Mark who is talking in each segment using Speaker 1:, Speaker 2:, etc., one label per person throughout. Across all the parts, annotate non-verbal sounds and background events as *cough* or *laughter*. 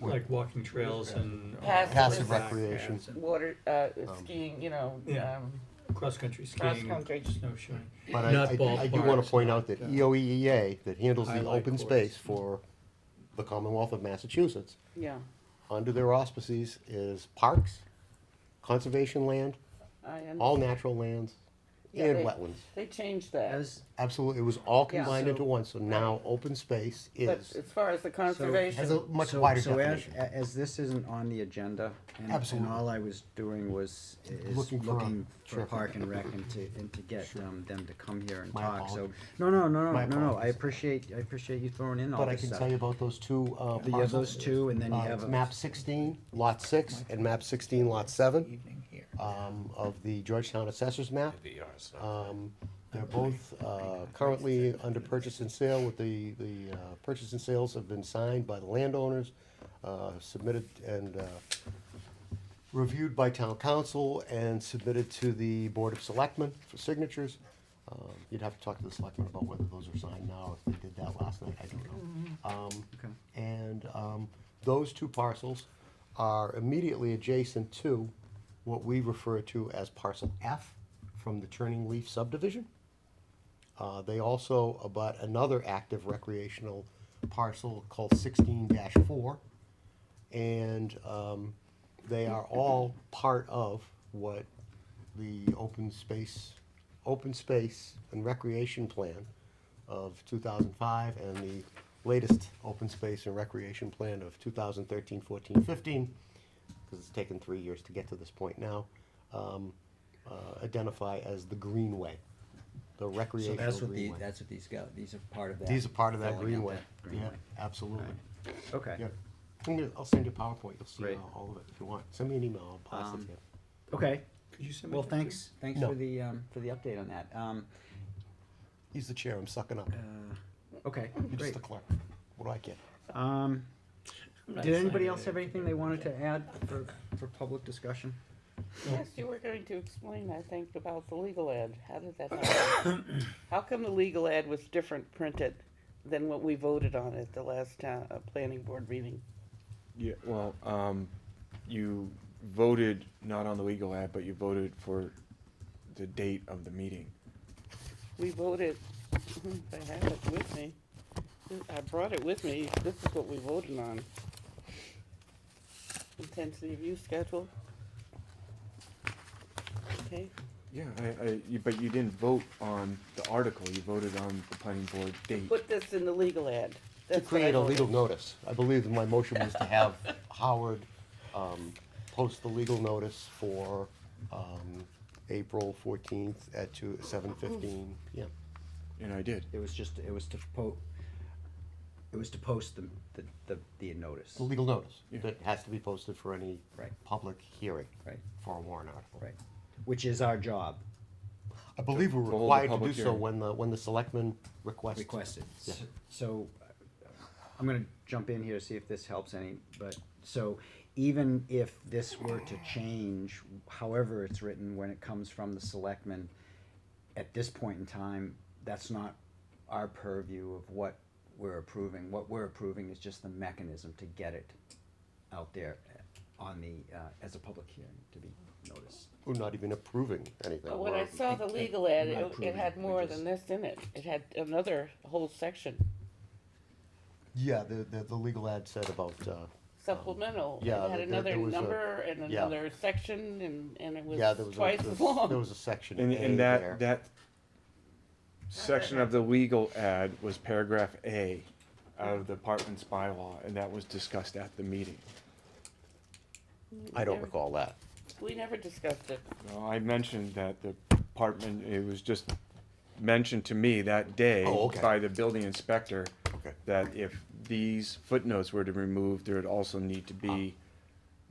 Speaker 1: like walking trails and.
Speaker 2: Passive
Speaker 1: Passive
Speaker 2: Passive
Speaker 3: recreation.
Speaker 2: water, uh, skiing, you know,
Speaker 1: Yeah.
Speaker 2: um,
Speaker 1: Cross-country skiing,
Speaker 2: cross-country.
Speaker 1: snowshoeing.
Speaker 3: But I,
Speaker 1: Not
Speaker 3: I, I do wanna
Speaker 1: ballparks,
Speaker 3: point out that E
Speaker 1: not, uh,
Speaker 3: EOEEA, that handles the
Speaker 1: highlight
Speaker 3: open
Speaker 1: courts.
Speaker 3: space for the Commonwealth of Massachusetts,
Speaker 2: Yeah,
Speaker 3: under their auspices is parks, conservation land,
Speaker 2: I, un-
Speaker 3: all natural lands,
Speaker 2: Yeah,
Speaker 3: and
Speaker 2: they-
Speaker 3: wetlands.
Speaker 2: they changed that.
Speaker 4: As,
Speaker 3: Absolutely, it was all
Speaker 2: Yeah.
Speaker 3: combined into
Speaker 4: So-
Speaker 3: one, so now open space
Speaker 2: But
Speaker 3: is,
Speaker 2: as far as the
Speaker 3: has a
Speaker 2: conservation,
Speaker 3: much
Speaker 4: so-
Speaker 3: wider
Speaker 4: so as-
Speaker 3: definition.
Speaker 4: a- As this isn't on the agenda, and, and
Speaker 3: Absolutely.
Speaker 4: all I was doing was, is
Speaker 3: Looking
Speaker 4: looking
Speaker 3: for a-
Speaker 4: for
Speaker 3: sure.
Speaker 4: Park and Rec and to, and to get, um, them to come here and
Speaker 3: My
Speaker 4: talk, so.
Speaker 3: apologies.
Speaker 4: No, no, no,
Speaker 3: My
Speaker 4: no, no, no, I
Speaker 3: apologies.
Speaker 4: appreciate, I appreciate you throwing in all
Speaker 3: But I
Speaker 4: this
Speaker 3: can
Speaker 4: stuff.
Speaker 3: tell you about those two, uh,
Speaker 4: You have
Speaker 3: parcels.
Speaker 4: those two, and then you
Speaker 3: Uh,
Speaker 4: have. a-
Speaker 3: map sixteen, lot six, and map sixteen, lot seven, um, of the Georgetown assessors map. Um, they're both, uh, currently under purchase and sale with the, the, uh, purchase and sales have been signed by the landowners, uh, submitted and, uh, reviewed by town council and submitted to the Board of Selectmen for signatures. Um, You'd have to talk to the selectmen about whether those are signed now, if they did that last night, I don't know. Um, And um, those two parcels are immediately adjacent to what we refer to as parcel F from the Turning Leaf subdivision. Uh, They also abut another active recreational parcel called sixteen four. And um, they are all part of what the open space, open space and recreation plan of two thousand five and the latest open space and recreation plan of 2013-14-15, because it's taken three years to get to this point now, um, uh, identify as the greenway, the
Speaker 4: So
Speaker 3: recreational greenway.
Speaker 4: that's what the, that's what these go, these are part of that.
Speaker 3: These are part of that
Speaker 4: filling out
Speaker 3: greenway.
Speaker 4: that
Speaker 3: Yeah,
Speaker 4: greenway.
Speaker 3: absolutely.
Speaker 4: Okay.
Speaker 3: Yep. I'm gonna- I'll send you a PowerPoint, you'll see
Speaker 4: Great.
Speaker 3: all all of it if you want. Send me an email, I'll pass it
Speaker 4: Um,
Speaker 3: to you.
Speaker 4: Okay,
Speaker 1: Could you send me
Speaker 4: well,
Speaker 1: that too?
Speaker 4: thanks, thanks
Speaker 3: No.
Speaker 4: for the, um, for the update on that, um,
Speaker 3: He's the chair, I'm sucking up.
Speaker 4: uh, okay,
Speaker 3: You're just
Speaker 4: great.
Speaker 3: the clerk. What do I get?
Speaker 4: Um,
Speaker 1: I'm not
Speaker 4: did anybody
Speaker 1: signing
Speaker 4: else
Speaker 1: it.
Speaker 4: have anything they wanted to add for, for public discussion?
Speaker 2: yes, you were going to explain, I think, about the legal ad. How did that happen? How come the legal ad was different printed than what we voted on at the last town, uh, planning board meeting?
Speaker 5: Yeah, well, um, you voted not on the legal ad, but you voted for the date of the meeting.
Speaker 2: We voted, *laughs* if I have it with me, I brought it with me, this is what we voted on. Intensity of use schedule. Okay,
Speaker 5: Yeah, I, I, you, but you didn't vote on the article, you voted on the planning board date.
Speaker 2: put this in the legal ad.
Speaker 3: To
Speaker 2: That's what I
Speaker 3: create a
Speaker 2: voted.
Speaker 3: legal notice. I believe that my motion was to have *laughs* Howard um, post the legal notice for um, April fourteenth at two, seven fifteen. Yeah,
Speaker 5: And I did.
Speaker 4: It was just, it was to po, it was to post the, the, the, the notice,
Speaker 3: the legal notice
Speaker 5: Yeah.
Speaker 3: that has to be posted for any
Speaker 4: Right.
Speaker 3: public hearing
Speaker 4: Right.
Speaker 3: for a warrant article.
Speaker 4: right, which is our job
Speaker 3: I believe we're
Speaker 5: To hold a
Speaker 3: required to do
Speaker 5: public
Speaker 3: so
Speaker 5: hearing.
Speaker 3: when the, when the selectmen request.
Speaker 4: requested. S-
Speaker 3: Yeah.
Speaker 4: So, uh, I'm gonna jump in here to see if this helps any, but, so, even if this were to change, however it's written, when it comes from the selectmen, at this point in time, that's not our purview of what we're approving. What we're approving is just the mechanism to get it out there on the, uh, as a public hearing to be noticed.
Speaker 3: We're not even approving anything.
Speaker 2: But when
Speaker 3: We're-
Speaker 2: I saw the
Speaker 4: it-
Speaker 2: legal ad,
Speaker 4: not
Speaker 2: it, it
Speaker 4: approving it,
Speaker 2: had
Speaker 4: we
Speaker 2: more
Speaker 4: just-
Speaker 2: than this in it, it had another whole section,
Speaker 3: Yeah, the, the, the legal ad said about, uh,
Speaker 2: supplemental. It
Speaker 3: Um, yeah,
Speaker 2: had
Speaker 3: there- there-
Speaker 2: another
Speaker 3: there was a-
Speaker 2: number and
Speaker 3: yeah.
Speaker 2: another section and, and it
Speaker 3: yeah, there was.
Speaker 2: was
Speaker 3: a-
Speaker 2: twice
Speaker 3: there
Speaker 2: as
Speaker 3: was- There
Speaker 2: long.
Speaker 3: was a section
Speaker 5: And,
Speaker 3: A
Speaker 5: and
Speaker 3: there.
Speaker 5: that, that section of the legal ad was paragraph A out of the apartments bylaw, and that was discussed at the meeting.
Speaker 3: I don't
Speaker 2: There-
Speaker 3: recall that.
Speaker 2: We never discussed it.
Speaker 5: Well, I mentioned that the apartment, it was just mentioned to me that day
Speaker 3: Oh, okay.
Speaker 5: by the building inspector
Speaker 3: Okay.
Speaker 5: that if these footnotes were to be removed, there would also need to be
Speaker 3: Ah.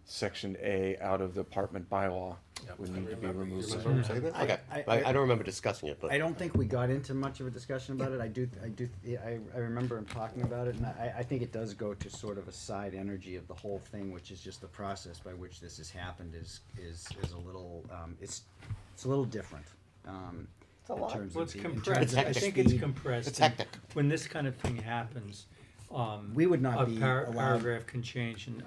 Speaker 5: section A out of the apartment bylaw would need to be removed.
Speaker 1: Hmm. Mm.
Speaker 3: Okay,
Speaker 4: I-
Speaker 3: I, I don't remember discussing it, but.
Speaker 4: I don't think we got into much of a discussion about it. I do, I do, I, I remember him talking about it, and I, I think it does go to sort of a side energy of the whole thing, which is just the process by which this has happened is, is, is a little, um, it's, it's a little different. um,
Speaker 2: It's a
Speaker 4: in
Speaker 2: lot.
Speaker 4: terms
Speaker 1: Well,
Speaker 4: of
Speaker 1: it's
Speaker 4: the- in terms
Speaker 1: compressed,
Speaker 4: of
Speaker 1: I
Speaker 4: the
Speaker 1: think it's
Speaker 4: speed.
Speaker 1: compressed.
Speaker 3: It's
Speaker 1: and
Speaker 3: hectic.
Speaker 1: When this kind of thing happens, um,
Speaker 4: We would not
Speaker 1: a
Speaker 4: be
Speaker 1: par-
Speaker 4: allowed-
Speaker 1: paragraph can change, and